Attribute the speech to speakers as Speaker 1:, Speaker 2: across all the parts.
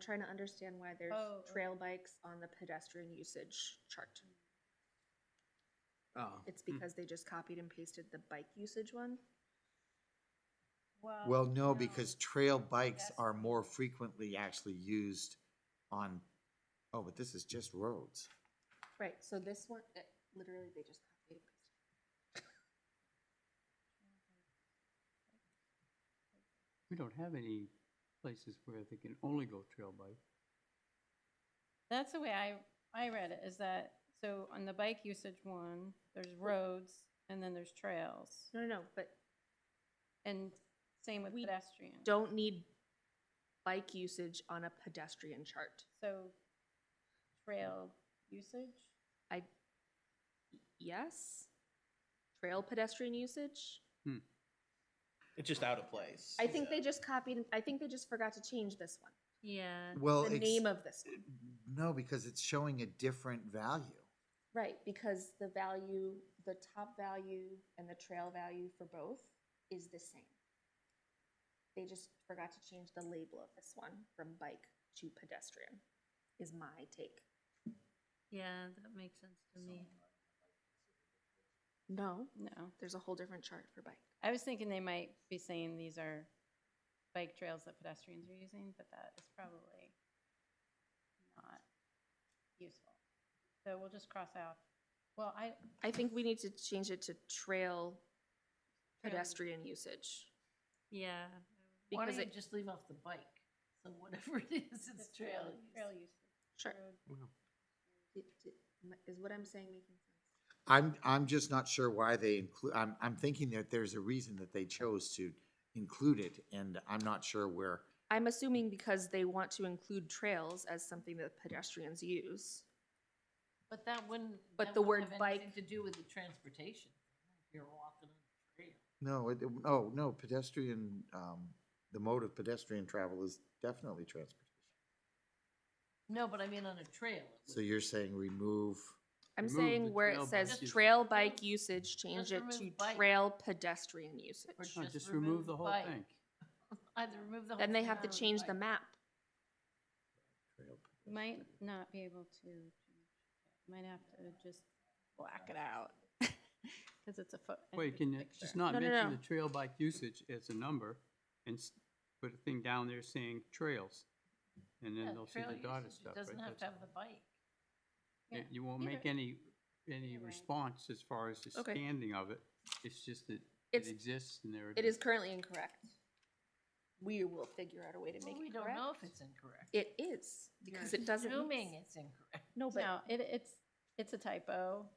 Speaker 1: trying to understand why there's
Speaker 2: Oh, oh.
Speaker 1: trail bikes on the pedestrian usage chart.
Speaker 3: Oh.
Speaker 1: It's
Speaker 4: Hmm.
Speaker 1: because they just copied and pasted the bike usage one.
Speaker 3: Well,
Speaker 1: Oh,
Speaker 3: no, because trail bikes are more frequently actually used on, oh, but this is just roads.
Speaker 1: Right, so this one, eh, literally, they just copied and pasted.
Speaker 4: We don't have any places where they can only go trail bike.
Speaker 2: That's the way I, I read it, is that, so on the bike usage one, there's roads and then there's trails.
Speaker 1: No, no, no, but
Speaker 2: And same with
Speaker 1: We
Speaker 2: pedestrian.
Speaker 1: don't need bike usage on a pedestrian chart.
Speaker 2: So trail usage?
Speaker 1: I, yes? Trail pedestrian usage?
Speaker 5: It's just out of place.
Speaker 1: I think they just copied, I think they just forgot to change this one,
Speaker 2: Yeah.
Speaker 3: Well,
Speaker 1: the
Speaker 3: it's-
Speaker 1: name of this one.
Speaker 3: no, because it's showing a different value.
Speaker 1: Right, because the value, the top value and the trail value for both is the same. They just forgot to change the label of this one from bike to pedestrian, is my take.
Speaker 2: Yeah, that makes sense to me.
Speaker 1: No,
Speaker 2: No,
Speaker 1: there's a whole different chart for bike.
Speaker 2: I was thinking they might be saying these are bike trails that pedestrians are using, but that is probably not useful. So we'll just cross out. Well, I,
Speaker 1: I think we need to change it to trail
Speaker 2: Trail.
Speaker 1: pedestrian usage.
Speaker 2: yeah.
Speaker 6: Why don't
Speaker 1: Because
Speaker 6: you
Speaker 1: it,
Speaker 6: just leave off the bike? So whatever it is, it's trail. use.
Speaker 2: Trail use.
Speaker 1: sure.
Speaker 2: Road.
Speaker 1: Is what I'm saying making sense?
Speaker 3: I'm, I'm just not sure why they include, I'm, I'm thinking that there's a reason that they chose to include it, and I'm not sure where.
Speaker 1: I'm assuming because they want to include trails as something that pedestrians use.
Speaker 6: But that wouldn't.
Speaker 1: But
Speaker 6: that
Speaker 1: the
Speaker 6: wouldn't
Speaker 1: word
Speaker 6: have anything
Speaker 1: bike-
Speaker 6: To do with the transportation. If you're walking on the trail.
Speaker 3: No, it, oh, no, pedestrian, um, the mode of pedestrian travel is definitely transportation.
Speaker 6: No, but I mean on a trail. it
Speaker 3: So
Speaker 6: would-
Speaker 3: you're saying remove,
Speaker 1: I'm
Speaker 4: Remove the
Speaker 1: saying where it
Speaker 4: trail
Speaker 1: says
Speaker 4: bike usage.
Speaker 1: trail bike usage, change
Speaker 6: Just
Speaker 1: it
Speaker 6: remove
Speaker 1: to
Speaker 6: bike.
Speaker 1: trail pedestrian
Speaker 6: or
Speaker 1: usage.
Speaker 4: No, just remove the whole
Speaker 6: bike.
Speaker 4: thing.
Speaker 6: Either remove the whole.
Speaker 1: Then they
Speaker 6: thing
Speaker 1: have to
Speaker 6: or
Speaker 1: change the
Speaker 6: bike.
Speaker 1: map.
Speaker 2: Might not be able to, might have to just black it out. Cause it's a foot.
Speaker 4: Wait, can you just not
Speaker 1: No, no,
Speaker 4: mention
Speaker 1: no.
Speaker 4: the trail bike usage as a number and s- put a thing down there saying trails? And
Speaker 6: Yeah,
Speaker 4: then they'll see
Speaker 6: trail
Speaker 4: the dotted
Speaker 6: usage,
Speaker 4: stuff,
Speaker 6: It doesn't
Speaker 4: right?
Speaker 6: have to
Speaker 4: That's-
Speaker 6: have the bike.
Speaker 4: yeah,
Speaker 2: Yeah,
Speaker 4: You won't
Speaker 2: either-
Speaker 4: make any, any
Speaker 2: either way.
Speaker 4: response as far as the
Speaker 1: Okay.
Speaker 4: standing of it. It's just that it
Speaker 1: It's-
Speaker 4: exists and there it
Speaker 1: It
Speaker 4: is.
Speaker 1: is currently incorrect. We will figure out a way to
Speaker 6: Well,
Speaker 1: make
Speaker 6: we
Speaker 1: it
Speaker 6: don't know
Speaker 1: correct.
Speaker 6: if it's incorrect.
Speaker 1: It is,
Speaker 6: You're
Speaker 1: because it doesn't.
Speaker 6: Assuming it's incorrect.
Speaker 1: No, but
Speaker 2: No, it, it's, it's a typo.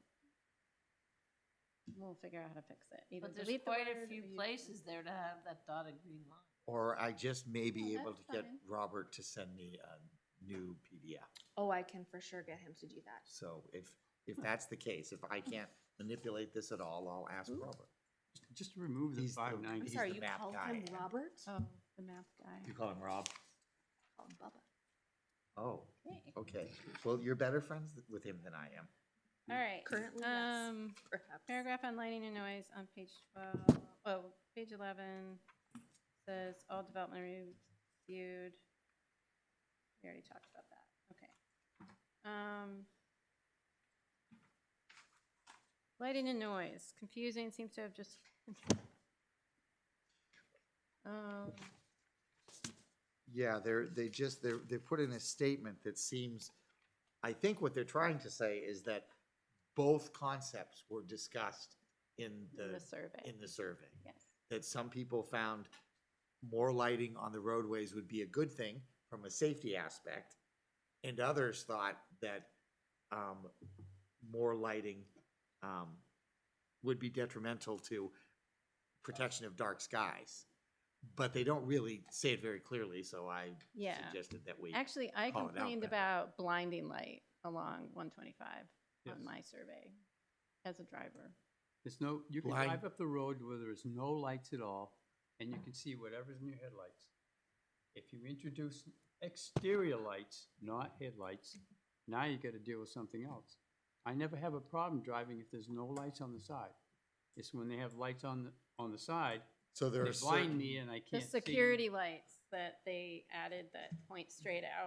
Speaker 2: We'll figure out how to fix it. Either
Speaker 6: But there's
Speaker 2: delete the
Speaker 6: quite a
Speaker 2: word or
Speaker 6: few
Speaker 2: use-
Speaker 6: places there to have that dotted green line.
Speaker 3: or I just may be
Speaker 2: No,
Speaker 3: able to
Speaker 2: Oh, that's
Speaker 3: get
Speaker 2: fine.
Speaker 3: Robert to send me a new PDF.
Speaker 1: Oh, I can for sure get him to do that.
Speaker 3: So if,
Speaker 2: Hmm.
Speaker 3: if that's the case, if I can't manipulate this at all, I'll ask Robert.
Speaker 4: Just remove the
Speaker 3: He's the-
Speaker 4: five
Speaker 1: I'm
Speaker 3: He's
Speaker 4: ninety.
Speaker 1: sorry,
Speaker 3: the
Speaker 1: you
Speaker 3: map
Speaker 1: call
Speaker 3: guy,
Speaker 1: him
Speaker 3: Ann.
Speaker 1: Robert?
Speaker 2: Oh, the math guy.
Speaker 3: call him Rob?
Speaker 1: Call him Bubba.
Speaker 3: Oh,
Speaker 6: Okay.
Speaker 3: okay. Well, you're better friends th- with him than I am.
Speaker 2: All right.
Speaker 1: Currently, yes.
Speaker 2: Um,
Speaker 1: Perhaps.
Speaker 2: Paragraph on lighting and noise on page 12, oh, page 11 says all development reviewed. We already talked about that, okay. Um, Lighting and noise, confusing, seems to have just. Um,
Speaker 3: Yeah, they're, they just, they're, they put in a statement that seems, I think what they're trying to say is that both concepts were discussed in
Speaker 2: The
Speaker 3: the,
Speaker 2: survey,
Speaker 3: in the survey.
Speaker 2: yes.
Speaker 3: that some people found more lighting on the roadways would be a good thing from a safety aspect, and others thought that um, more lighting um, would be detrimental to protection of dark skies. But they don't really say it very clearly, so I
Speaker 2: Yeah.
Speaker 3: suggested that we.
Speaker 2: Actually, I
Speaker 3: call it out
Speaker 2: complained
Speaker 3: then.
Speaker 2: about blinding light along 125
Speaker 4: Yes.
Speaker 2: on my survey as a driver.
Speaker 4: There's no, you can
Speaker 3: Blind.
Speaker 4: drive up the road where there's no lights at all, and you can see whatever's in your headlights. If you introduce exterior lights, not headlights, now you gotta deal with something else. I never have a problem driving if there's no lights on the side. It's when they have lights on, the on the side,
Speaker 3: So there
Speaker 4: they
Speaker 3: are certain.
Speaker 4: blind me and I
Speaker 2: The
Speaker 4: can't see.
Speaker 2: security lights that they added that point straight out